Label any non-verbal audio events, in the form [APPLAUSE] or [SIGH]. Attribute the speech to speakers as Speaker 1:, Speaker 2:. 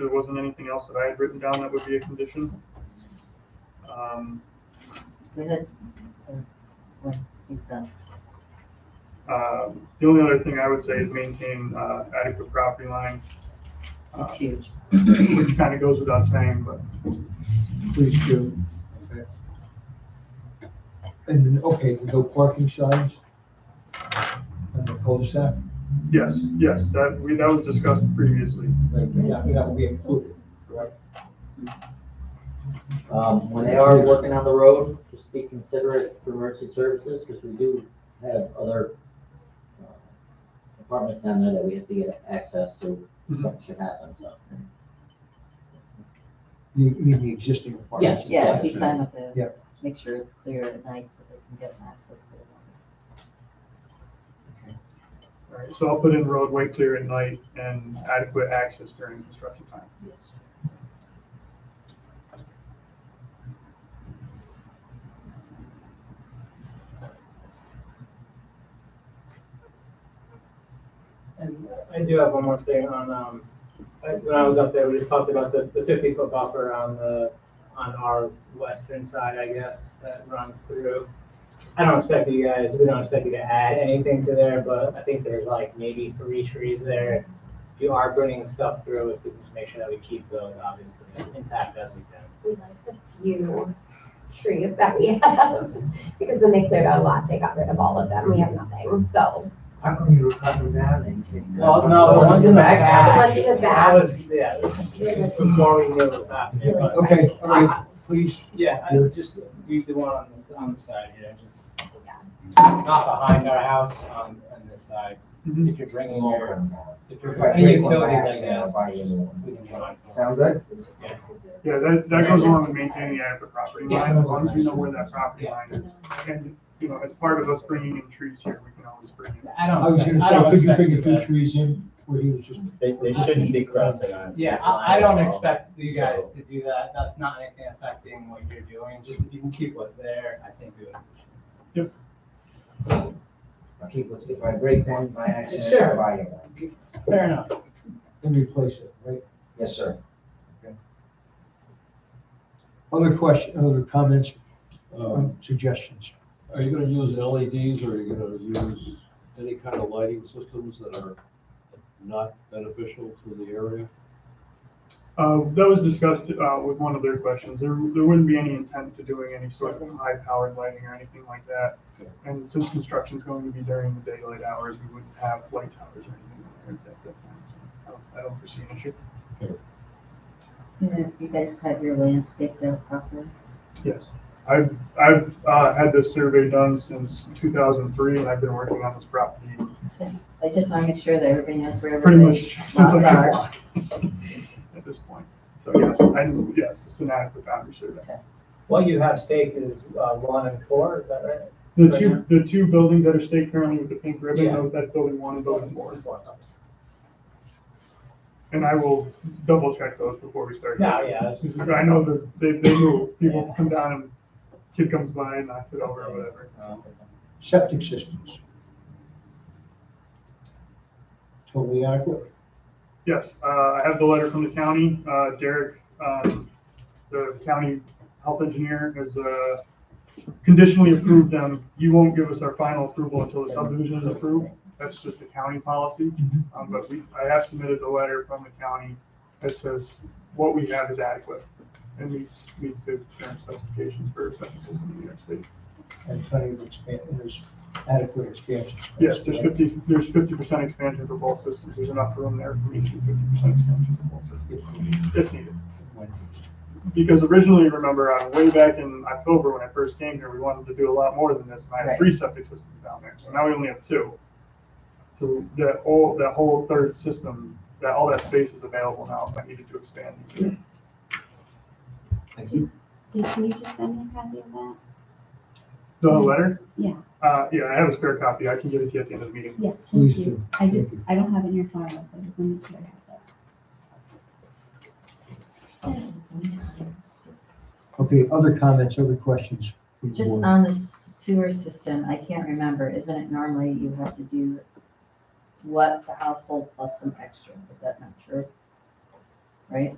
Speaker 1: there wasn't anything else that I had written down that would be a condition. Um,
Speaker 2: We're good. Or, uh, when He's done.
Speaker 1: uh, The only other thing I would say is maintain uh, adequate property line, uh,
Speaker 2: It's huge.
Speaker 1: which kind of goes without saying, but
Speaker 3: Please do. Okay. And, then, okay, we go parking signs and the cul-de-sac,
Speaker 1: yes, yes, that, we, that was discussed previously.
Speaker 3: right, that, that will be included, correct?
Speaker 4: Um, when they are working on the road, just be considerate for emergency services, because we do have other uh, apartments down there that we have to get access to,
Speaker 5: Mm-hmm.
Speaker 4: if something should happen, so.
Speaker 3: You you mean the existing apartments?
Speaker 2: Yeah, if you sign with
Speaker 3: Yeah.
Speaker 2: the, make sure it's clear at night so they can get access to it.
Speaker 1: All right, So I'll put in roadway clear at night and adequate access during construction time.
Speaker 5: And I do have one more thing on, um, I- when I was up there, we just talked about the, the fifty foot buffer on the, on our western side, I guess, that runs through. I don't expect you guys, we don't expect you to add anything to there, but I think there's like maybe three trees there. If you are bringing stuff through, if we can just make sure that we keep those obviously intact as we can.
Speaker 6: we like the few trees that we [LAUGHS] have, because when they cleared out a lot, they got rid of all of them, we have nothing, so.
Speaker 7: How come you were cutting down and you take?
Speaker 5: Well, no, the ones in the back.
Speaker 6: The ones in
Speaker 5: That
Speaker 6: the back.
Speaker 5: was, yeah, before we knew what was happening, but.
Speaker 3: Okay, all
Speaker 5: Ah.
Speaker 3: right, please,
Speaker 5: Yeah, I
Speaker 3: Yeah.
Speaker 5: just do the one on the, on the side here, just
Speaker 6: Yeah.
Speaker 5: not behind our house on, on this side.
Speaker 1: Mhm.
Speaker 3: Mm-hmm.
Speaker 5: If you're bringing your, if you're
Speaker 7: Right,
Speaker 5: bringing
Speaker 7: bring one
Speaker 5: utilities,
Speaker 7: back
Speaker 5: I
Speaker 7: and
Speaker 5: guess.
Speaker 7: buy you
Speaker 5: just
Speaker 7: one.
Speaker 5: we can get on.
Speaker 7: Sound good?
Speaker 1: Yeah, that, that goes along with maintaining adequate property
Speaker 5: Yeah.
Speaker 1: line, as long as we know where that property line is. And, you know, as part of us bringing in trees here, we can always bring in.
Speaker 5: I
Speaker 3: I was
Speaker 5: don't,
Speaker 3: gonna
Speaker 5: expect- I
Speaker 3: say,
Speaker 5: don't
Speaker 3: could you
Speaker 5: expect
Speaker 3: bring
Speaker 5: you
Speaker 3: a few
Speaker 5: guys.
Speaker 3: trees in where he was just?
Speaker 8: They, they shouldn't be crossing on.
Speaker 5: Yeah,
Speaker 8: this
Speaker 5: I, I
Speaker 8: line
Speaker 5: don't
Speaker 8: at all.
Speaker 5: expect you guys
Speaker 8: So-
Speaker 5: to do that, that's not anything affecting what you're doing, just if you can keep what's there, I think we would.
Speaker 7: I'll keep what's, if I break one by accident,
Speaker 5: Sure.
Speaker 7: I'll buy you one.
Speaker 5: Fair enough.
Speaker 3: and replace it, right?
Speaker 7: Yes, sir.
Speaker 3: Other question, other comments,
Speaker 9: Um,
Speaker 3: suggestions?
Speaker 9: Are you gonna use LEDs or are you gonna use any kind of lighting systems that are not beneficial to the area?
Speaker 1: Uh, that was discussed, uh, with one of their questions. There, there wouldn't be any intent to doing any sort of high-powered lighting or anything like that. And since construction's going to be during the daylight hours, we wouldn't have light towers or anything like that at that time. So I don't- I don't foresee an issue.
Speaker 2: And if you guys have your landscape there properly.
Speaker 1: Yes. I've, I've, uh, had this survey done since two thousand three, and I've been working on this property
Speaker 2: I just want to make sure that everybody knows where
Speaker 1: pretty
Speaker 2: everything
Speaker 1: much [LAUGHS] since I've been
Speaker 2: Sorry.
Speaker 1: walking [LAUGHS] at this point. So yes, I, yes, it's an adequate boundary survey.
Speaker 5: What you have staked is uh, one and four, is that right?
Speaker 1: The two, the two buildings that are staked currently with the pink ribbon,
Speaker 5: Yeah.
Speaker 1: those- that's building one and building four.
Speaker 5: Four.
Speaker 1: And I will double check those before we start.
Speaker 5: No, yeah, that's-
Speaker 1: Because I know that they, they move, people
Speaker 5: Yeah.
Speaker 1: come down and kid comes by and knocks it over or whatever.
Speaker 5: Oh.
Speaker 3: Septic systems. Totally adequate.
Speaker 1: Yes, uh, I have the letter from the county. Uh, Derek, um, the county health engineer has uh, conditionally approved them. You won't give us our final approval until the subdivision is approved. That's just a county policy. Um, But we, I have submitted the letter from the county that says what we have is adequate and meets, meets the current specifications for septic system in New York State.
Speaker 3: And plenty of expansion, there's adequate expansion. space,
Speaker 1: Yes, there's
Speaker 3: right?
Speaker 1: fifty, there's fifty percent expansion for both systems. There's enough room there for each fifty percent expansion for both systems. If needed. Because originally, remember, uh, way back in October when I first came here, we wanted to do a lot more than this, and I had
Speaker 2: Right.
Speaker 1: three septic systems down there, so now we only have two. So that all, that whole third system, that, all that space is available now if I needed to expand.
Speaker 3: Thank you.
Speaker 6: Did, can you just send me a copy of that?
Speaker 1: The letter?
Speaker 10: Mm-hmm. Yeah.
Speaker 1: Uh, yeah, I have a spare copy, I can give it to you at the end of the meeting.
Speaker 10: Yeah,
Speaker 3: Please
Speaker 10: thank
Speaker 3: do.
Speaker 10: you. I just, I don't have it in your file, so I just wanted to have that.
Speaker 3: Okay, other comments, other questions? from the
Speaker 2: Just
Speaker 3: board?
Speaker 2: on the sewer system, I can't remember, isn't it normally you have to do what the household plus some extra, is that not true? right?